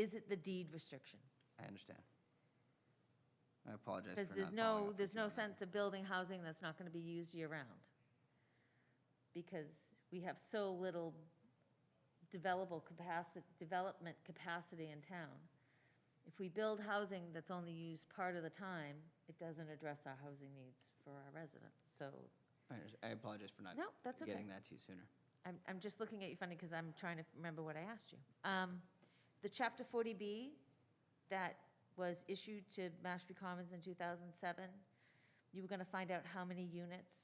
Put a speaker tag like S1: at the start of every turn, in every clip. S1: Is it the deed restriction?
S2: I understand. I apologize
S1: Because
S2: for not
S1: there's
S2: following
S1: no,
S2: up
S1: there's
S2: with you
S1: no
S2: on that.
S1: sense of building housing that's not going to be used year-round. Because we have so little developable capacity, development capacity in town. If we build housing that's only used part of the time, it doesn't address our housing needs for our residents. So
S2: I under- I apologize for not.
S1: No, that's okay.
S2: Getting that to you sooner.
S1: I'm, I'm just looking at you funny because I'm trying to remember what I asked you. Um, The Chapter 40B that was issued to Mashpee Commons in 2007, you were going to find out how many units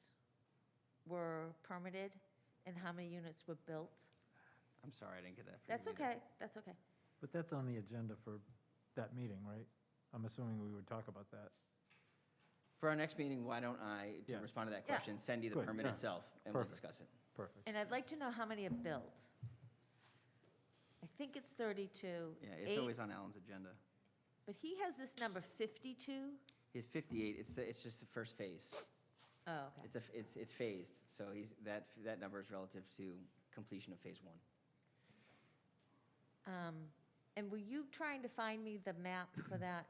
S1: were permitted and how many units were built.
S2: I'm sorry I didn't get that for you.
S1: That's
S2: either.
S1: okay, that's okay.
S3: But that's on the agenda for that meeting, right? I'm assuming we would talk about that.
S2: For our next meeting, why don't I, to
S3: Yeah.
S2: respond to that
S1: Yeah.
S2: question, send you the
S3: Good,
S2: permit
S3: yeah.
S2: itself and we'll
S3: Perfect.
S2: discuss it.
S3: Perfect.
S1: And I'd like to know how many are built. I think it's 32.
S2: Yeah, it's
S1: Eight-
S2: always on Alan's agenda.
S1: But he has this number 52?
S2: He's 58, it's, the it's just the first phase.
S1: Oh, okay.
S2: It's, a f- it's, it's phased, so he's, that, that number is relative to completion of phase one.
S1: Um, And were you trying to find me the map for that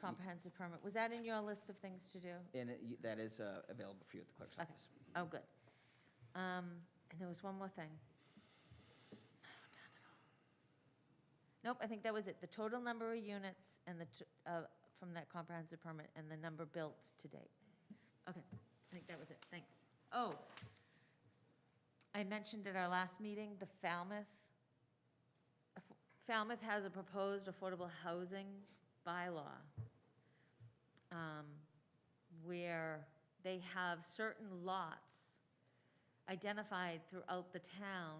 S1: comprehensive permit? Was that in your list of things to do?
S2: And it- you- that is uh, available for you at the clerk's
S1: Okay,
S2: office.
S1: oh, good. Um, And there was one more thing. Nope, I think that was it, the total number of units and the, t- uh, from that comprehensive permit and the number built to date. Okay, I think that was it, thanks. Oh, I mentioned at our last meeting, the Falmouth, Falmouth has a proposed affordable housing bylaw um, where they have certain lots identified throughout the town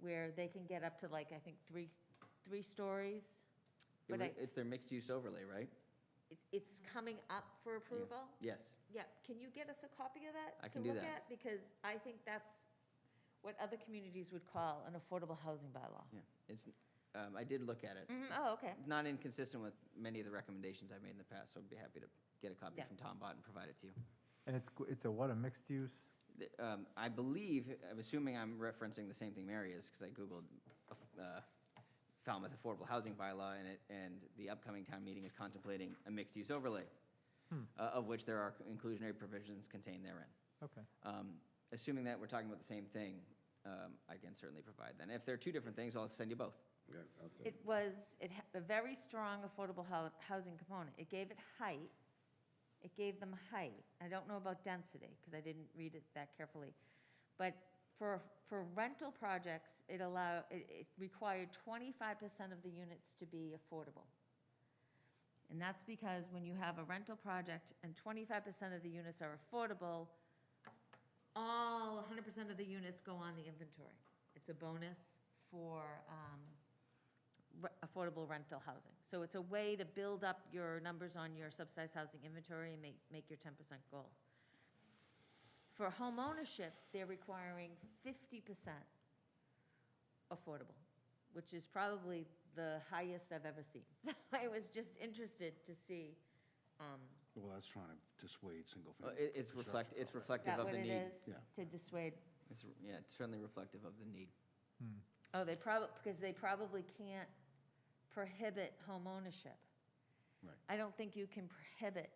S1: where they can get up to like, I think, three, three stories.
S2: It
S1: But
S2: wa-
S1: I,
S2: It's their mixed-use overlay, right?
S1: it- it's coming up for
S2: Yeah.
S1: approval?
S2: Yes.
S1: Yeah, can you get us a copy of that?
S2: I can do
S1: To look
S2: that.
S1: at, because I think that's what other communities would call an affordable housing bylaw.
S2: Yeah, it's, um, I did look at it.
S1: Mhm, oh, okay,
S2: Not inconsistent with many of the recommendations I've made in the past, so I'd be happy to get a copy
S1: Yeah.
S2: from Tom Bott and provide it to you.
S3: And it's, it's a what, a mixed use?
S2: The- um, I believe, I'm assuming I'm referencing the same thing Mary is, because I Googled uh, Falmouth Affordable Housing Bylaw, and it, and the upcoming town meeting is contemplating a mixed-use overlay, uh, of which there are inclusionary provisions contained therein.
S3: Okay.
S2: Um, Assuming that we're talking about the same thing, um, I can certainly provide that. If they're two different things, I'll send you both.
S4: Yeah, it's out there.
S1: it was, it had a very strong affordable hou- housing component. It gave it height, it gave them height. I don't know about density, because I didn't read it that carefully. But for, for rental projects, it allow, it, it required twenty-five percent of the units to be affordable. And that's because when you have a rental project and twenty-five percent of the units are affordable, all hundred percent of the units go on the inventory. It's a bonus for, um, re- affordable rental housing. So it's a way to build up your numbers on your subsidized housing inventory and make, make your ten percent goal. For homeownership, they're requiring fifty percent affordable, which is probably the highest I've ever seen. So I was just interested to see, um,
S4: Well, that's trying to dissuade
S2: Uh,
S4: single-family.
S2: it- It's reflect,
S4: construction.
S2: it's
S1: is
S2: reflective
S1: that
S2: of
S1: what
S2: the
S1: it
S2: need.
S1: is?
S4: Yeah.
S1: To dissuade,
S2: It's, yeah, it's certainly reflective of the need.
S3: Hmm.
S1: oh, they probably, because they probably can't prohibit homeownership.
S4: Right.
S1: I don't think you can prohibit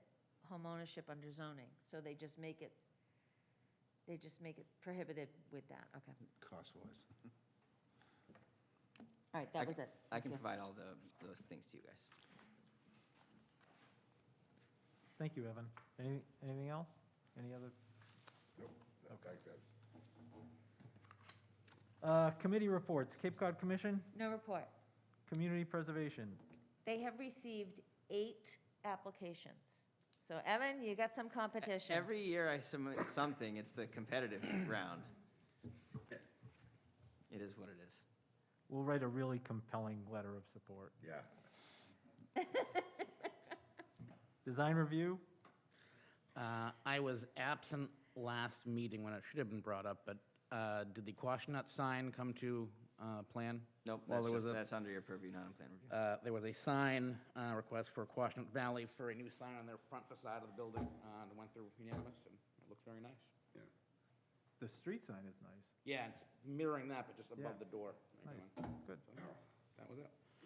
S1: homeownership under zoning, so they just make it, they just make it prohibited with that, okay.
S4: cost-wise.
S1: All right,
S2: I
S1: that was
S2: can-
S1: it.
S2: I can
S1: Thank you.
S2: provide all the, those things to you guys.
S3: Thank you, Evan. Any, anything else? Any other? Uh, committee reports, Cape Cod Commission,
S1: No report.
S3: Community Preservation.
S1: They have received eight applications. So Evan, you got some competition.
S2: Every year I submit something, it's the competitive round. It is what it is.
S3: We'll write a really compelling letter of support.
S4: Yeah.
S3: Design review,
S5: Uh, I was absent last meeting when it should have been brought up, but uh, did the Quashnut sign come to uh, plan?
S2: Nope,
S5: Well,
S2: that's
S5: there was
S2: just,
S5: a,
S2: that's under your purview, not in plan review.
S5: uh, there was a sign uh, request for Quashnut Valley for a new sign on their front facade of the building, uh, and it went through unanimous, and it looks very nice.
S3: the street sign is nice.
S5: Yeah, it's mirroring that, but just
S3: Yeah.
S5: above the door.
S3: Nice, good.
S5: So, That was it.